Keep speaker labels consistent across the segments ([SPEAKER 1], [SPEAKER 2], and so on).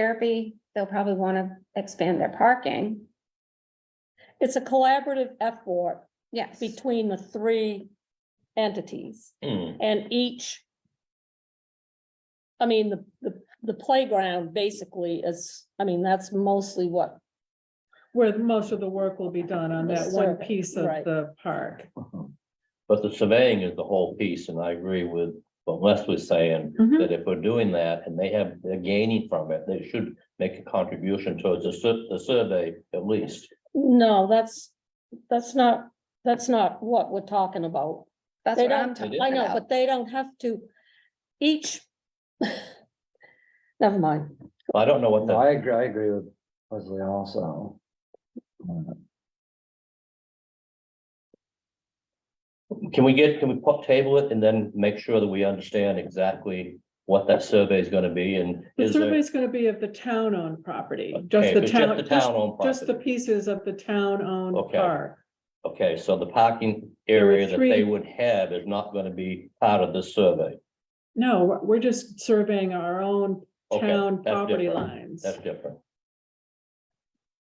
[SPEAKER 1] therapy, they'll probably want to expand their parking.
[SPEAKER 2] It's a collaborative effort
[SPEAKER 1] Yes,
[SPEAKER 2] between the three entities
[SPEAKER 3] Hmm,
[SPEAKER 2] and each. I mean, the, the, the playground basically is, I mean, that's mostly what,
[SPEAKER 4] Where most of the work will be done on
[SPEAKER 2] The
[SPEAKER 4] that one
[SPEAKER 2] survey,
[SPEAKER 4] piece of
[SPEAKER 2] right.
[SPEAKER 4] the park.
[SPEAKER 3] Mm-hmm. But the surveying is the whole piece, and I agree with what Les was saying,
[SPEAKER 4] Mhm.
[SPEAKER 3] that if we're doing that and they have, they're gaining from it, they should make a contribution towards the sur- the survey at least.
[SPEAKER 2] no, that's, that's not, that's not what we're talking about.
[SPEAKER 1] that's
[SPEAKER 2] They
[SPEAKER 1] what I'm
[SPEAKER 2] don't,
[SPEAKER 1] talking
[SPEAKER 2] I know,
[SPEAKER 1] about.
[SPEAKER 2] but they don't have to, each. Never mind,
[SPEAKER 3] I don't know what
[SPEAKER 5] No,
[SPEAKER 3] that,
[SPEAKER 5] I agree, I agree with Leslie also. Uh,
[SPEAKER 3] can we get, can we put table it and then make sure that we understand exactly what that survey is gonna be and
[SPEAKER 4] The
[SPEAKER 3] is there?
[SPEAKER 4] survey's gonna be of the town-owned property,
[SPEAKER 3] Okay,
[SPEAKER 4] just the
[SPEAKER 3] but
[SPEAKER 4] town,
[SPEAKER 3] Just the
[SPEAKER 4] just,
[SPEAKER 3] town owned
[SPEAKER 4] just the
[SPEAKER 3] property.
[SPEAKER 4] pieces of the town-owned
[SPEAKER 3] Okay.
[SPEAKER 4] park.
[SPEAKER 3] Okay, so the parking
[SPEAKER 4] There were
[SPEAKER 3] area that they
[SPEAKER 4] three-
[SPEAKER 3] would have is not gonna be part of this survey.
[SPEAKER 4] No, we're- we're just surveying our own
[SPEAKER 3] Okay,
[SPEAKER 4] town
[SPEAKER 3] that's
[SPEAKER 4] property
[SPEAKER 3] different.
[SPEAKER 4] lines.
[SPEAKER 3] That's different.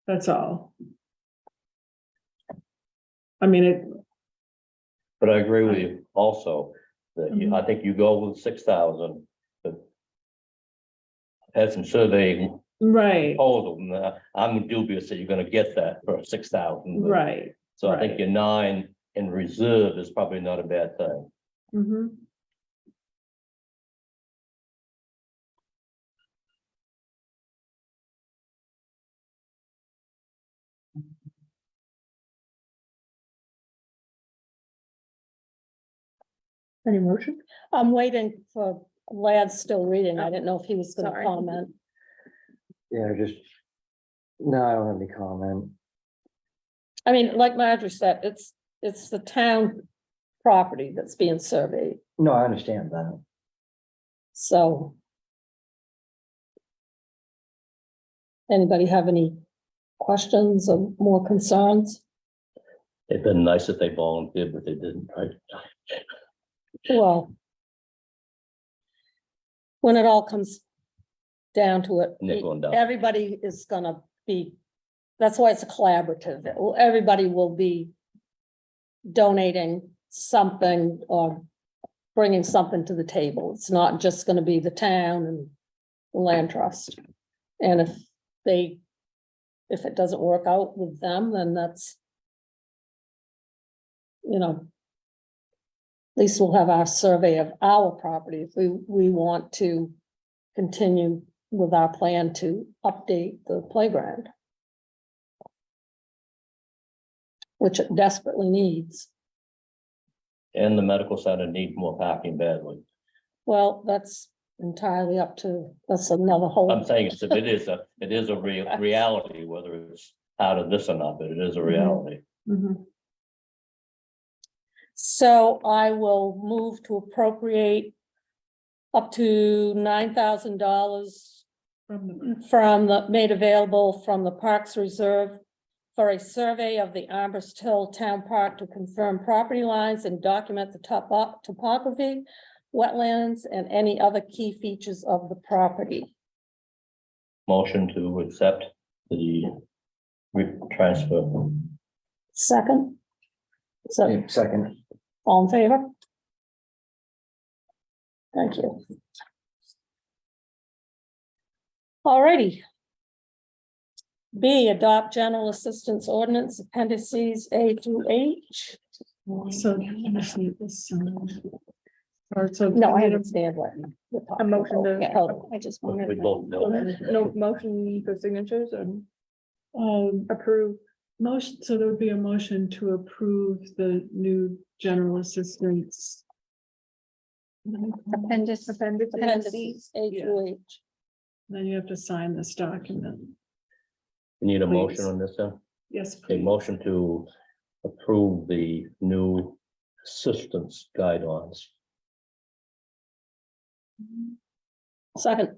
[SPEAKER 4] That's all. I mean, it,
[SPEAKER 3] But I agree with you also, that you-
[SPEAKER 4] Mm-hmm.
[SPEAKER 3] I think you go with six thousand, but. Had some surveying
[SPEAKER 4] right,
[SPEAKER 3] total, and uh, I'm dubious that you're gonna get that for six thousand.
[SPEAKER 4] right.
[SPEAKER 3] So I think
[SPEAKER 4] right.
[SPEAKER 3] your nine in reserve is probably not a bad thing.
[SPEAKER 4] Mhm.
[SPEAKER 2] any motion? I'm waiting for, Lad's still reading, I didn't know if he was gonna
[SPEAKER 1] Sorry.
[SPEAKER 2] comment.
[SPEAKER 5] Yeah, just, no, I don't have any comment.
[SPEAKER 2] I mean, like Marjorie said, it's, it's the town property that's being surveyed,
[SPEAKER 5] No, I understand that.
[SPEAKER 2] so. Anybody have any questions or more concerns?
[SPEAKER 3] It'd been nice if they volunteered, but they didn't, right?
[SPEAKER 2] Well. When it all comes down to it,
[SPEAKER 3] Nickel and dime.
[SPEAKER 2] everybody is gonna be, that's why it's a collaborative. It will- Everybody will be donating something or bringing something to the table. It's not just gonna be the town and the land trust. And if they, if it doesn't work out with them, then that's, you know, at least we'll have our survey of our property if we, we want to continue with our plan to update the playground. Which it desperately needs.
[SPEAKER 3] And the medical center need more parking badly.
[SPEAKER 2] Well, that's entirely up to, that's another
[SPEAKER 3] I'm
[SPEAKER 2] whole,
[SPEAKER 3] saying it's- it is a, it is a real reality, whether it's out of this or not, but it is
[SPEAKER 4] Mm-hmm.
[SPEAKER 3] a reality.
[SPEAKER 4] Mhm.
[SPEAKER 2] so I will move to appropriate up to nine thousand dollars
[SPEAKER 4] From the-
[SPEAKER 2] from the, made available from the Parks Reserve for a survey of the Amherst Hill Town Park to confirm property lines and document the top up topography, wetlands, and any other key features of the property.
[SPEAKER 3] Motion to accept the re- transfer.
[SPEAKER 2] Second? So,
[SPEAKER 5] Yeah, Second.
[SPEAKER 2] all in favor? Thank you. Alrighty. B, adopt general assistance ordinance appendices A through H.
[SPEAKER 4] So. you just need this, um, Or so.
[SPEAKER 2] No, I
[SPEAKER 4] need a-
[SPEAKER 2] understand what. you're talking
[SPEAKER 6] A motion
[SPEAKER 2] about.
[SPEAKER 6] to-
[SPEAKER 2] Yeah, hold on.
[SPEAKER 6] I just wanted.
[SPEAKER 3] We both know that.
[SPEAKER 6] No motion for signatures and
[SPEAKER 4] Um,
[SPEAKER 6] approve.
[SPEAKER 4] motion, so there would be a motion to approve the new general assistance. Then
[SPEAKER 1] Appendix,
[SPEAKER 2] Appendices A through H.
[SPEAKER 4] you have to sign this document.
[SPEAKER 3] You Need a motion
[SPEAKER 4] Please.
[SPEAKER 3] on this, then?
[SPEAKER 4] Yes,
[SPEAKER 3] A
[SPEAKER 4] please.
[SPEAKER 3] motion to approve the new assistance guidelines.
[SPEAKER 2] Second,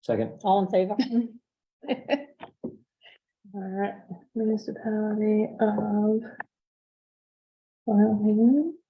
[SPEAKER 5] Second.
[SPEAKER 2] all in favor?
[SPEAKER 6] All right, municipality of. Wyoming.